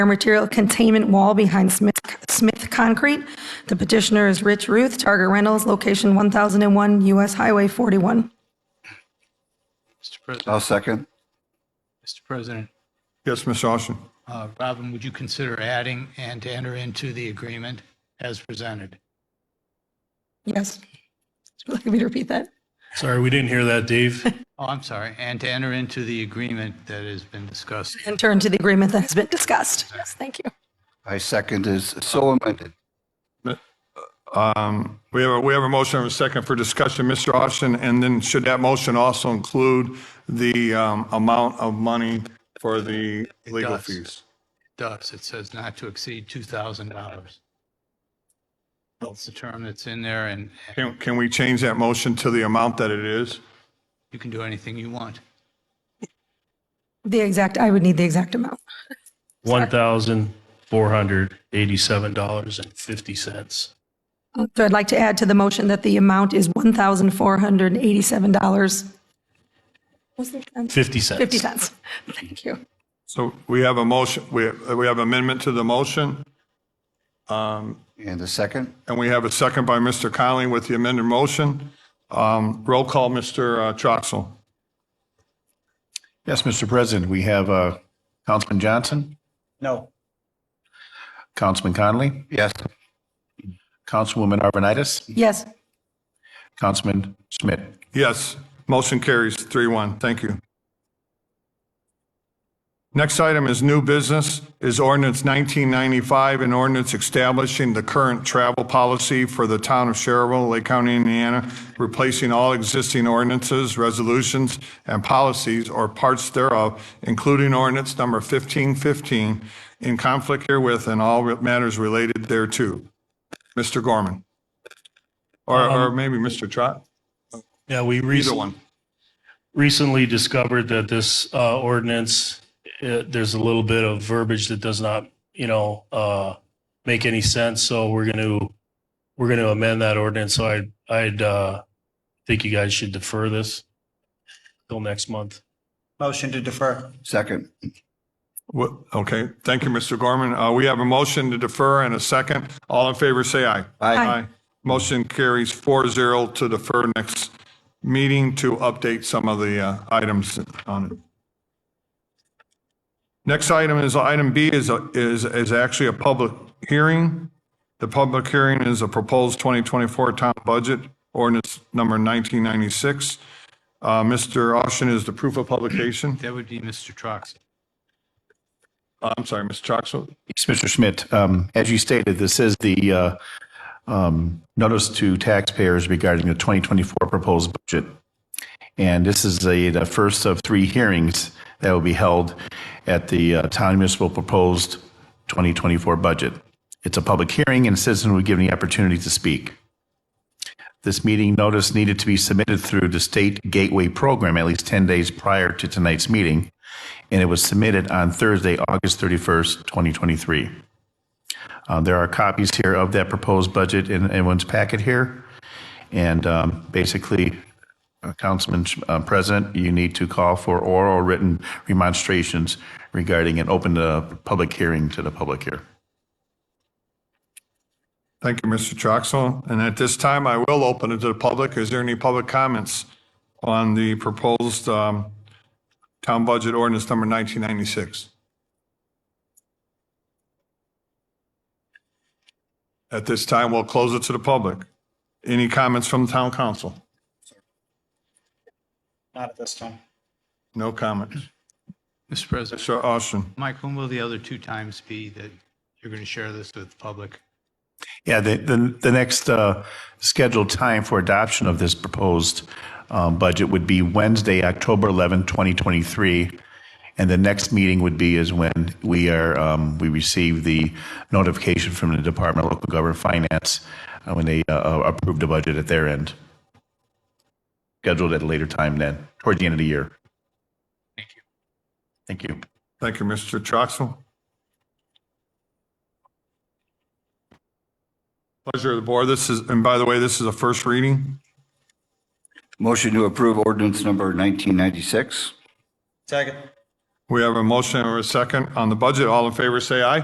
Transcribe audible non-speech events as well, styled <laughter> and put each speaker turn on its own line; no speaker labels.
air material containment wall behind Smith, Smith Concrete. The petitioner is Rich Ruth, Target Rentals, location 1001 US Highway 41.
Mr. President,
I'll second.
Mr. President,
Yes, Mr. Austin.
uh, Robin, would you consider adding and to enter into the agreement as presented?
Yes. Would you like me to repeat that?
Sorry, we didn't hear that, <laughs> Dave.
Oh, I'm sorry, and to enter into the agreement that has been discussed.
And turn to the agreement that has been discussed. Yes, thank you.
I second is so amended.
Um, We have, a we have a motion and a second for discussion, Mr. Austin, and then should that motion also include the um, amount of money for the legal
does.
fees?
Does, it says not to exceed $2,000. That's the term that's in there, and and
Can, can we change that motion to the amount that it is?
you can do anything you want.
The exact, I would need the exact amount.
One thousand four hundred eighty-seven dollars and fifty cents.
So I'd like to add to the motion that the amount is $1,487. Was it? um,
Fifty cents.
50 cents. Thank you.
So we have a motion, we, we have amendment to the motion,
And the second?
and we have a second by Mr. Conley with the amended motion. Um, Roll call, Mr. Troxel.
Yes, Mr. President, we have uh, Councilman Johnson,
No.
Councilman Conley,
Yes.
Councilwoman Arvanitis,
Yes,
Councilman Schmidt.
Yes, motion carries three one. Thank you. Next item is new business, is ordinance 1995, an ordinance establishing the current travel policy for the town of Sherrville, Lake County, Indiana, replacing all existing ordinances, resolutions, and policies or parts thereof, including ordinance number 1515, in conflict herewith and all matters related thereto. Mr. Gorman? Or or maybe Mr. Trot?
Yeah, we
Um, Either
recently,
one.
recently discovered that this, uh, ordinance, uh, there's a little bit of verbiage that does not, you know, uh, make any sense. So we're going to, we're going to amend that ordinance. So I, I'd, uh, think you guys should defer this till next month.
Motion to defer.
Second.
What, okay, thank you, Mr. Gorman. Uh, we have a motion to defer and a second. All in favor, say aye.
Aye.
Motion carries four zero to defer next meeting to update some of the, uh, items on it. Next item is, item B is, a- is, is actually a public hearing. The public hearing is a proposed 2024 town budget, ordinance number 1996. Uh, Mr. Austin is the proof of publication.
That would be Mr. Trox.
Uh, I'm sorry, Mr. Troxel.
Yes, Mr. Schmidt, um, as you stated, this is the uh, um, notice to taxpayers regarding the 2024 proposed budget. And this is a- the first of three hearings that will be held at the uh, Town Municipal Proposed 2024 Budget. It's a public hearing and citizens will be given the opportunity to speak. This meeting notice needed to be submitted through the State Gateway Program at least 10 days prior to tonight's meeting, and it was submitted on Thursday, August 31st, 2023. Uh, There are copies here of that proposed budget in everyone's packet here. And um, basically, uh, Councilman uh, President, you need to call for oral or written remonstrations regarding an open uh, public hearing to the public here.
Thank you, Mr. Troxel. And at this time, I will open it to the public. Is there any public comments on the proposed um, town budget ordinance number 1996? At this time, we'll close it to the public. Any comments from the town council?
Not at this time.
No comments.
Mr. President,
Mr. Austin?
Mike, when will the other two times be that you're going to share this with the public?
Yeah, the, the, the next uh, scheduled time for adoption of this proposed um, budget would be Wednesday, October 11, 2023. And the next meeting would be is when we are, um, we receive the notification from the Department of Local Government Finance uh, when they uh, approve the budget at their end. Scheduled at a later time then, toward the end of the year. Thank you. Thank you.
Thank you, Mr. Troxel. Pleasure of the board. This is, and by the way, this is a first reading.
Motion to approve ordinance number 1996?
Second.
We have a motion and a second on the budget. All in favor, say aye.